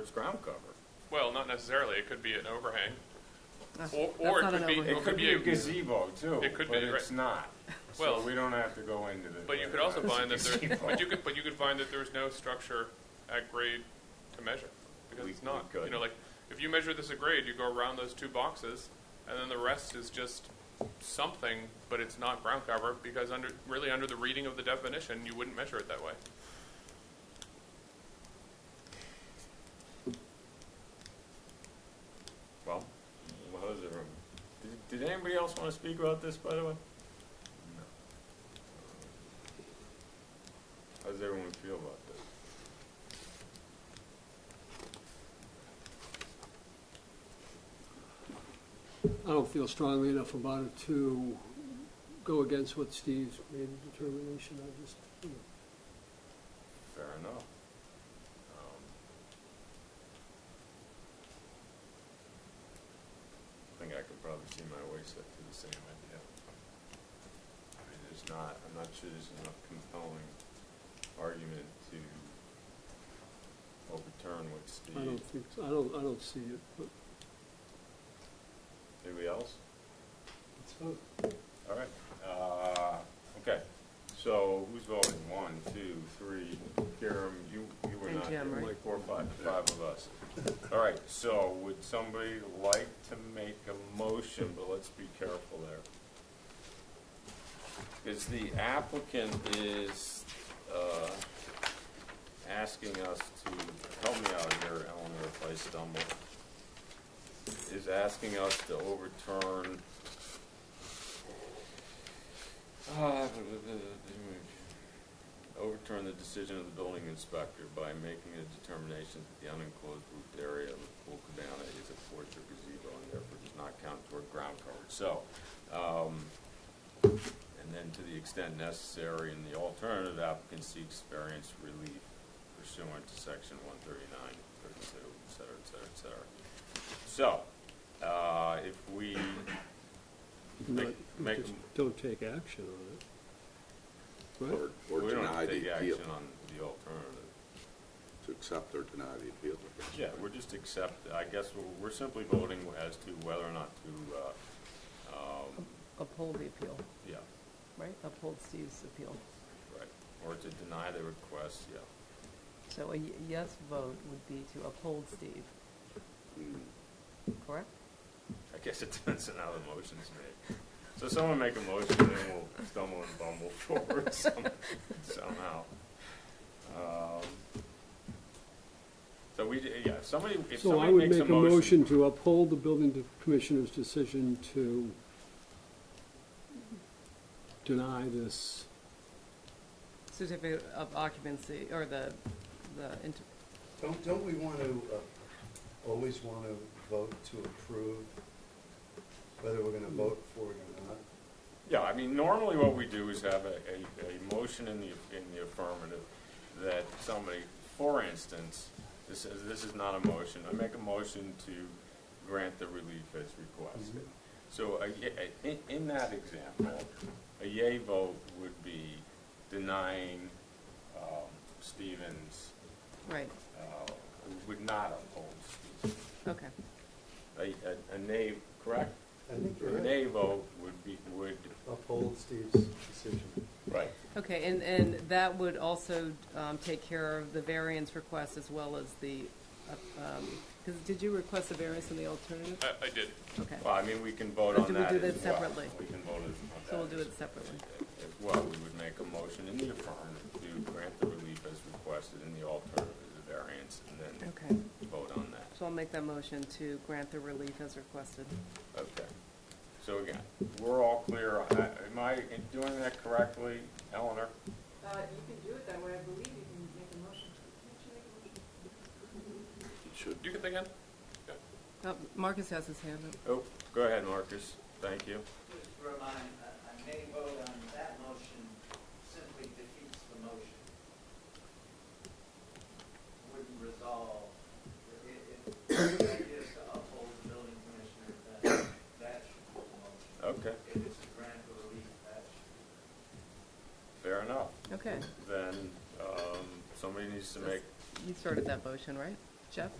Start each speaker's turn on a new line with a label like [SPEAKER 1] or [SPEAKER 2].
[SPEAKER 1] There's ground cover.
[SPEAKER 2] Well, not necessarily. It could be an overhang.
[SPEAKER 3] That's-
[SPEAKER 2] Or-
[SPEAKER 3] that's
[SPEAKER 2] or it
[SPEAKER 3] not
[SPEAKER 2] could
[SPEAKER 3] an
[SPEAKER 2] be-
[SPEAKER 3] overhang.
[SPEAKER 1] It could be a gazebo too,
[SPEAKER 2] It could
[SPEAKER 1] but
[SPEAKER 2] be, right.
[SPEAKER 1] it's not. So
[SPEAKER 2] Well-
[SPEAKER 1] we don't have to go into this.
[SPEAKER 2] But you
[SPEAKER 1] whether
[SPEAKER 2] could
[SPEAKER 1] or
[SPEAKER 2] also
[SPEAKER 1] not it's a
[SPEAKER 2] find that there,
[SPEAKER 1] gazebo.
[SPEAKER 2] but you could, but you could find that there's no structure at grade to measure. Because
[SPEAKER 1] We-
[SPEAKER 2] it's not,
[SPEAKER 1] we could.
[SPEAKER 2] you know, like, if you measure this at grade, you go around those two boxes, and then the rest is just something, but it's not ground cover, because under, really under the reading of the definition, you wouldn't measure it that way.
[SPEAKER 1] Well, well, how's it, um, did, did anybody else wanna speak about this, by the way? No. How does everyone feel about this?
[SPEAKER 4] I don't feel strongly enough about it to go against what Steve's made a determination. I just, you know,
[SPEAKER 1] Fair enough. Um, I think I could probably see my way set to the same idea. I mean, there's not, I'm not sure there's enough compelling argument to overturn what
[SPEAKER 4] I
[SPEAKER 1] Steve,
[SPEAKER 4] don't think, I don't, I don't see it, but
[SPEAKER 1] anybody else?
[SPEAKER 4] it's fine.
[SPEAKER 1] All right, uh, okay, so who's voting? One, two, three, Karen, you, you were
[SPEAKER 3] And
[SPEAKER 1] not
[SPEAKER 3] Jim,
[SPEAKER 1] here,
[SPEAKER 3] right?
[SPEAKER 1] four, five, five of us. All right, so would somebody like to make a motion, but let's be careful there. Because the applicant is, uh, asking us to, help me out here, Eleanor, if I stumble, is asking us to overturn Ah, Overturn the decision of the building inspector by making a determination that the unenclosed roofed area of the pool cabana is a porch or gazebo and therefore does not count toward ground cover. So, um, and then to the extent necessary, in the alternative applicant seeks variance relief pursuant to section one thirty-nine, thirty-two, et cetera, et cetera, et cetera. So, uh, if we, Make-
[SPEAKER 4] Not-
[SPEAKER 1] make
[SPEAKER 4] just
[SPEAKER 1] them-
[SPEAKER 4] Don't take action on it. Right?
[SPEAKER 5] Or, or
[SPEAKER 1] we
[SPEAKER 5] deny
[SPEAKER 1] don't
[SPEAKER 5] the
[SPEAKER 1] take
[SPEAKER 5] appeal,
[SPEAKER 1] action on the alternative.
[SPEAKER 5] to accept or deny the appeal.
[SPEAKER 1] Yeah, we're just accept, I guess we're, we're simply voting as to whether or not to, uh, um,
[SPEAKER 3] Uphold the appeal,
[SPEAKER 1] yeah,
[SPEAKER 3] right? Uphold Steve's appeal.
[SPEAKER 1] right, or to deny the request, yeah.
[SPEAKER 3] So a y- yes vote would be to uphold Steve,
[SPEAKER 5] Mm.
[SPEAKER 3] correct?
[SPEAKER 1] I guess it depends on how the motion's made. So someone make a motion, and then we'll stumble and bumble forward some- somehow. Um, So we, d- yeah, if somebody, if
[SPEAKER 4] So I
[SPEAKER 1] somebody
[SPEAKER 4] would
[SPEAKER 1] makes
[SPEAKER 4] make
[SPEAKER 1] a
[SPEAKER 4] a motion to uphold the building de- commissioner's decision to deny this,
[SPEAKER 3] Certificate of occupancy, or the, the, inter-
[SPEAKER 6] Don't, don't we want to, uh, always want to vote to approve, whether we're going to vote for it or not?
[SPEAKER 1] Yeah, I mean, normally what we do is have a, a, a motion in the, in the affirmative that somebody, for instance, this is, this is not a motion, I make a motion to grant the relief as requested. So, a ye- a- in, in that example, a yay vote would be denying, um, Stevens,
[SPEAKER 3] right,
[SPEAKER 1] uh, would not uphold Stevens.
[SPEAKER 3] okay.
[SPEAKER 1] A, a- a nay, correct?
[SPEAKER 6] I think you're
[SPEAKER 1] A
[SPEAKER 6] right.
[SPEAKER 1] nay vote would be, would,
[SPEAKER 6] Uphold Steve's decision.
[SPEAKER 1] right,
[SPEAKER 3] Okay, and, and that would also um, take care of the variance request as well as the, because did you request a variance in the alternative?
[SPEAKER 2] I, I did.
[SPEAKER 3] Okay,
[SPEAKER 1] Well, I mean, we can vote
[SPEAKER 3] Or
[SPEAKER 1] on
[SPEAKER 3] do we
[SPEAKER 1] that
[SPEAKER 3] do
[SPEAKER 1] as well.
[SPEAKER 3] that separately?
[SPEAKER 1] We can vote as-
[SPEAKER 3] so we'll
[SPEAKER 1] on that
[SPEAKER 3] do
[SPEAKER 1] as
[SPEAKER 3] it separately.
[SPEAKER 1] as well. We would make a motion in the affirmative to grant the relief as requested in the alternative as a variance, and then
[SPEAKER 3] Okay,
[SPEAKER 1] vote on that.
[SPEAKER 3] so I'll make that motion to grant the relief as requested.
[SPEAKER 1] Okay. So again, we're all clear. I- Am I doing that correctly, Eleanor?
[SPEAKER 7] Uh, you can do it that way, I believe you can make a motion. Can't you make a motion?
[SPEAKER 5] It should,
[SPEAKER 2] You can think in?
[SPEAKER 3] Oh, Marcus has his hand up.
[SPEAKER 1] Oh, go ahead, Marcus. Thank you.
[SPEAKER 8] Just to remind, a a nay vote on that motion simply defeats the motion. Wouldn't resolve, if, if the idea is to uphold the building commissioner, then that should be the motion.
[SPEAKER 1] Okay,
[SPEAKER 8] If it's a grant of relief, that should be.
[SPEAKER 1] fair enough.
[SPEAKER 3] Okay,
[SPEAKER 1] Then, um, somebody needs to make,
[SPEAKER 3] you started that motion, right? Jeff?